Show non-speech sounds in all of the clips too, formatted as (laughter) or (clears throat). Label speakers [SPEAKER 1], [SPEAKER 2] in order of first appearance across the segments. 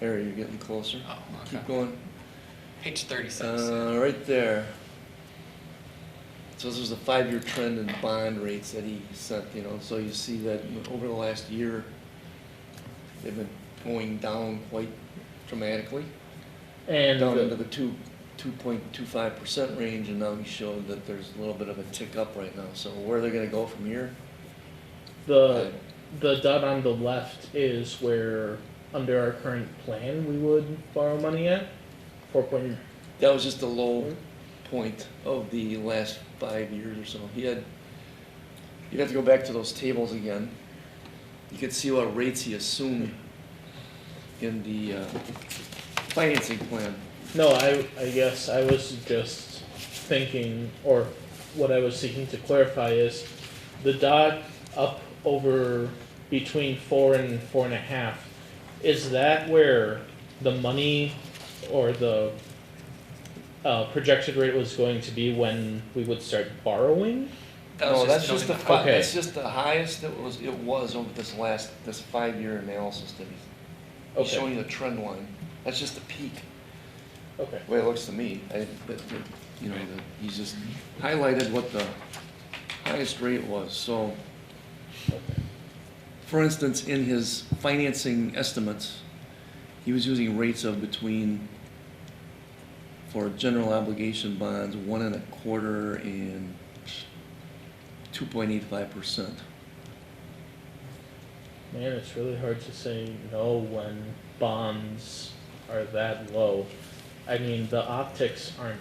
[SPEAKER 1] Harry, you're getting closer.
[SPEAKER 2] Oh,
[SPEAKER 1] Keep
[SPEAKER 2] okay.
[SPEAKER 1] going.
[SPEAKER 2] Page thirty-six.
[SPEAKER 1] Uh, right there. So this was a five-year trend in bond rates that he sent, you know, so you see that over the last year, they've been going down quite dramatically,
[SPEAKER 3] And
[SPEAKER 1] down into
[SPEAKER 3] the,
[SPEAKER 1] the two, two point two five percent range, and now he showed that there's a little bit of a tick up right now, so where they're gonna go from here?
[SPEAKER 3] the, the dot on the left is where, under our current plan, we would borrow money at, four point,
[SPEAKER 1] That was just the low point of the last five years or so. He had, you'd have to go back to those tables again. You could see what rates he assumed in the uh, financing plan.
[SPEAKER 3] no, I, I guess I was just thinking, or what I was seeking to clarify is, the dot up over between four and four and a half, is that where the money or the, uh, projected rate was going to be when we would start borrowing?
[SPEAKER 2] That
[SPEAKER 1] No,
[SPEAKER 2] was
[SPEAKER 1] that's just
[SPEAKER 2] just
[SPEAKER 1] the,
[SPEAKER 2] noting
[SPEAKER 1] fi-
[SPEAKER 3] Okay.
[SPEAKER 1] that's just the highest that was, it was over this last, this five-year analysis that he's, he's
[SPEAKER 3] Okay.
[SPEAKER 1] showing you the trend line. That's just the peak,
[SPEAKER 3] Okay.
[SPEAKER 1] the way it looks to me. I, but, but, you know, the- he's just highlighted what the highest rate was, so. For instance, in his financing estimates, he was using rates of between, for general obligation bonds, one and a quarter and two point eight five percent.
[SPEAKER 3] Man, it's really hard to say no when bonds are that low. I mean, the optics aren't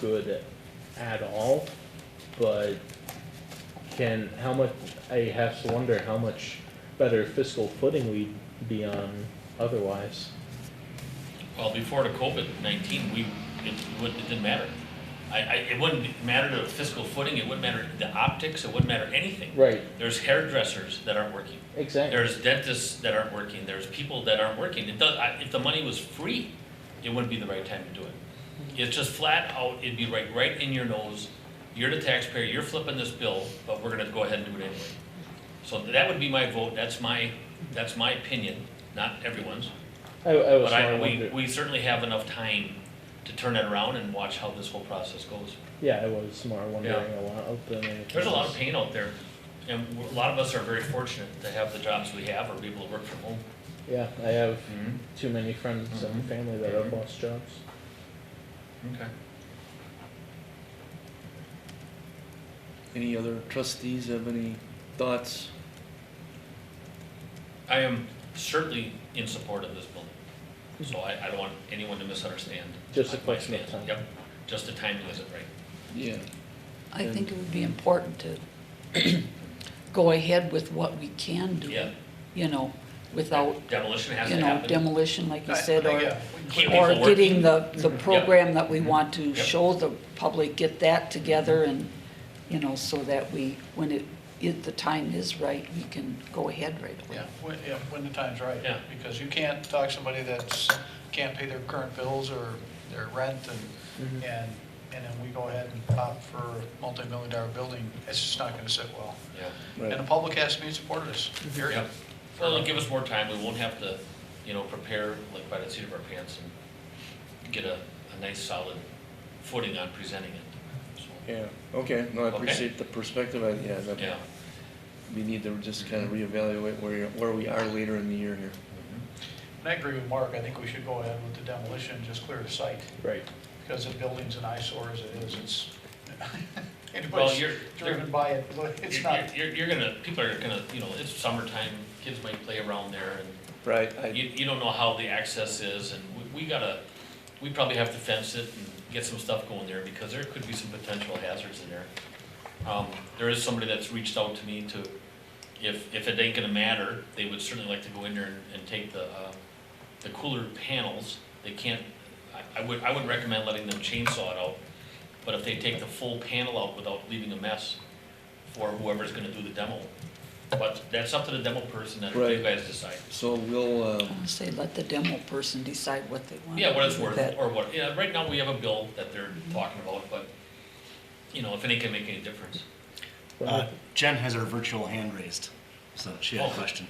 [SPEAKER 3] good at all, but can, how much, I have to wonder how much better fiscal footing we'd be on otherwise.
[SPEAKER 4] Well, before the COVID-19, we, it wouldn't, it didn't matter. I, I, it wouldn't matter the fiscal footing, it wouldn't matter the optics, it wouldn't matter anything.
[SPEAKER 3] Right,
[SPEAKER 4] There's hairdressers that aren't working,
[SPEAKER 3] exactly.
[SPEAKER 4] there's dentists that aren't working, there's people that aren't working. It does, I- if the money was free, it wouldn't be the right time to do it. It's just flat out, it'd be right, right in your nose, you're the taxpayer, you're flipping this bill, but we're gonna go ahead and do it anyway. So that would be my vote, that's my, that's my opinion, not everyone's.
[SPEAKER 3] I, I was
[SPEAKER 4] But
[SPEAKER 3] more
[SPEAKER 4] I, we,
[SPEAKER 3] wondering,
[SPEAKER 4] we certainly have enough time to turn it around and watch how this whole process goes.
[SPEAKER 3] yeah, I was more wondering a lot of the.
[SPEAKER 4] There's a lot of pain out there, and a lot of us are very fortunate to have the jobs we have or be able to work from home.
[SPEAKER 3] Yeah, I have
[SPEAKER 4] Mm-hmm.
[SPEAKER 3] too many friends and
[SPEAKER 4] Mhm.
[SPEAKER 3] family that have
[SPEAKER 4] Mhm.
[SPEAKER 3] lost jobs.
[SPEAKER 4] Okay.
[SPEAKER 1] Any other trustees have any thoughts?
[SPEAKER 4] I am certainly in support of this building, so I, I don't want anyone to misunderstand.
[SPEAKER 3] Just a
[SPEAKER 4] my
[SPEAKER 3] question of
[SPEAKER 4] stance.
[SPEAKER 3] time.
[SPEAKER 4] Yep, just the timing isn't right.
[SPEAKER 1] Yeah.
[SPEAKER 5] I think it would be important to (clears throat) go ahead with what we can do.
[SPEAKER 4] Yeah.
[SPEAKER 5] You know, without,
[SPEAKER 4] Demolition has
[SPEAKER 5] you
[SPEAKER 4] to
[SPEAKER 5] know,
[SPEAKER 4] happen.
[SPEAKER 5] demolition, like you
[SPEAKER 2] I-
[SPEAKER 5] said,
[SPEAKER 2] I
[SPEAKER 5] or,
[SPEAKER 2] get-
[SPEAKER 4] Keep people
[SPEAKER 5] or getting
[SPEAKER 4] working.
[SPEAKER 5] the, the program that we want to
[SPEAKER 4] Mm-hmm. Yep.
[SPEAKER 5] show the public, get that together and, you know, so that we, when it, if the time is right, we can go ahead right away.
[SPEAKER 6] Yeah, when, yeah, when the time's right.
[SPEAKER 4] Yeah.
[SPEAKER 6] Because you can't talk to somebody that's, can't pay their current bills or their rent and, and, and then we go ahead and opt for a multi-million dollar building, it's just not gonna sit well.
[SPEAKER 4] Yeah.
[SPEAKER 1] Right.
[SPEAKER 6] And the public has to be in support of this, period.
[SPEAKER 4] Yep. Well, it'll give us more time, we won't have to, you know, prepare like by the seat of our pants and get a, a nice solid footing on presenting it. So,
[SPEAKER 1] Yeah, okay, no, I
[SPEAKER 4] Okay.
[SPEAKER 1] appreciate the perspective, I, yeah, that-
[SPEAKER 4] Yeah.
[SPEAKER 1] we need to just kind of reevaluate where, you're- where we are later in the year here.
[SPEAKER 6] And I agree with Mark, I think we should go ahead with the demolition, just clear the site,
[SPEAKER 3] Right.
[SPEAKER 6] because the building's an eyesore as it is, it's,
[SPEAKER 4] Well,
[SPEAKER 6] (laughs) anybody's
[SPEAKER 4] you're, you're,
[SPEAKER 6] driven by it, look, it's not,
[SPEAKER 4] you're, you're gonna, people are gonna, you know, it's summertime, kids might play around there
[SPEAKER 1] Right,
[SPEAKER 4] and
[SPEAKER 1] I,
[SPEAKER 4] you, you don't know how the access is and we, we gotta, we probably have to fence it and get some stuff going there because there could be some potential hazards in there. Um, there is somebody that's reached out to me to, if, if it ain't gonna matter, they would certainly like to go in there and, and take the, uh, the cooler panels, they can't, I, I would, I would recommend letting them chainsaw it out, but if they take the full panel out without leaving a mess for whoever's gonna do the demo. But that's up to the demo person and you
[SPEAKER 1] Right.
[SPEAKER 4] guys decide.
[SPEAKER 1] so we'll, uh,
[SPEAKER 5] I'll Say, let the demo person decide what they want.
[SPEAKER 4] Yeah, what it's
[SPEAKER 5] to do
[SPEAKER 4] worth,
[SPEAKER 5] with that.
[SPEAKER 4] or what, yeah, right now we have a bill that they're talking about, but, you know, if any can make any difference.
[SPEAKER 3] Well,
[SPEAKER 7] Uh, Jen has her virtual hand raised, so she had
[SPEAKER 4] Oh.
[SPEAKER 7] a question.